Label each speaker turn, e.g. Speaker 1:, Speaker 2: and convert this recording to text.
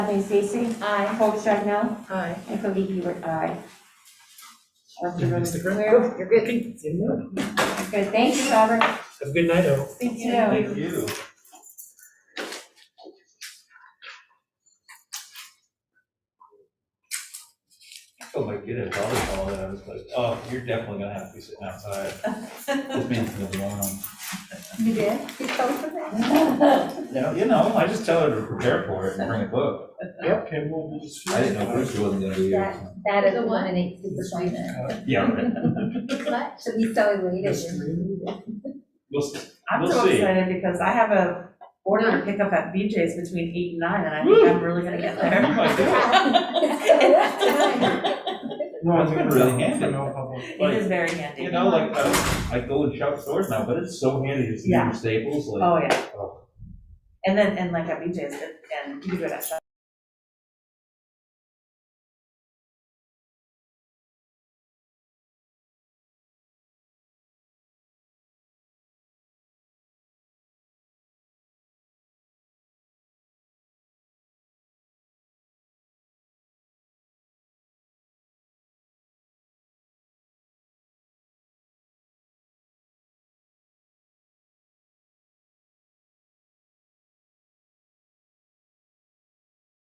Speaker 1: Kathleen Stacy. Aye. Hope Chagnon.
Speaker 2: Aye.
Speaker 1: And Cody Hebert, aye. Or if
Speaker 3: Did
Speaker 1: you
Speaker 3: I
Speaker 1: want
Speaker 3: miss
Speaker 1: to
Speaker 3: the
Speaker 1: declare-
Speaker 2: You're good.
Speaker 3: Okay, see you later.
Speaker 1: Good, thank you, Robert.
Speaker 3: Have a good night, all.
Speaker 1: Thank you.
Speaker 4: Thank you. Oh my goodness, all this, all that, I was like, oh, you're definitely gonna have to be sitting outside. This means no alone.
Speaker 1: You did? You told them that?
Speaker 4: No, you know, I just tell her to prepare for it and bring a book.
Speaker 3: Okay, well, we'll just.
Speaker 4: I didn't know Bruce wasn't gonna be here.
Speaker 5: That
Speaker 2: The what?
Speaker 5: eliminates his appointment.
Speaker 4: Yeah, right.
Speaker 5: So he's so elated.
Speaker 3: Yes,
Speaker 4: We'll see.
Speaker 2: I'm
Speaker 4: We'll
Speaker 2: so
Speaker 4: see.
Speaker 2: excited because I have a order to pick up at BJ's between eight and nine, and I think I'm really gonna get
Speaker 4: You
Speaker 2: there.
Speaker 4: might get-
Speaker 3: No,
Speaker 4: That's been really handy.
Speaker 2: It
Speaker 4: Like,
Speaker 2: is very handy.
Speaker 4: you know, like, I, I go and shop stores now, but it's so handy to see
Speaker 2: Yeah.
Speaker 4: your staples, like.
Speaker 2: Oh, yeah. And then, and like at BJ's, it- and you can do it at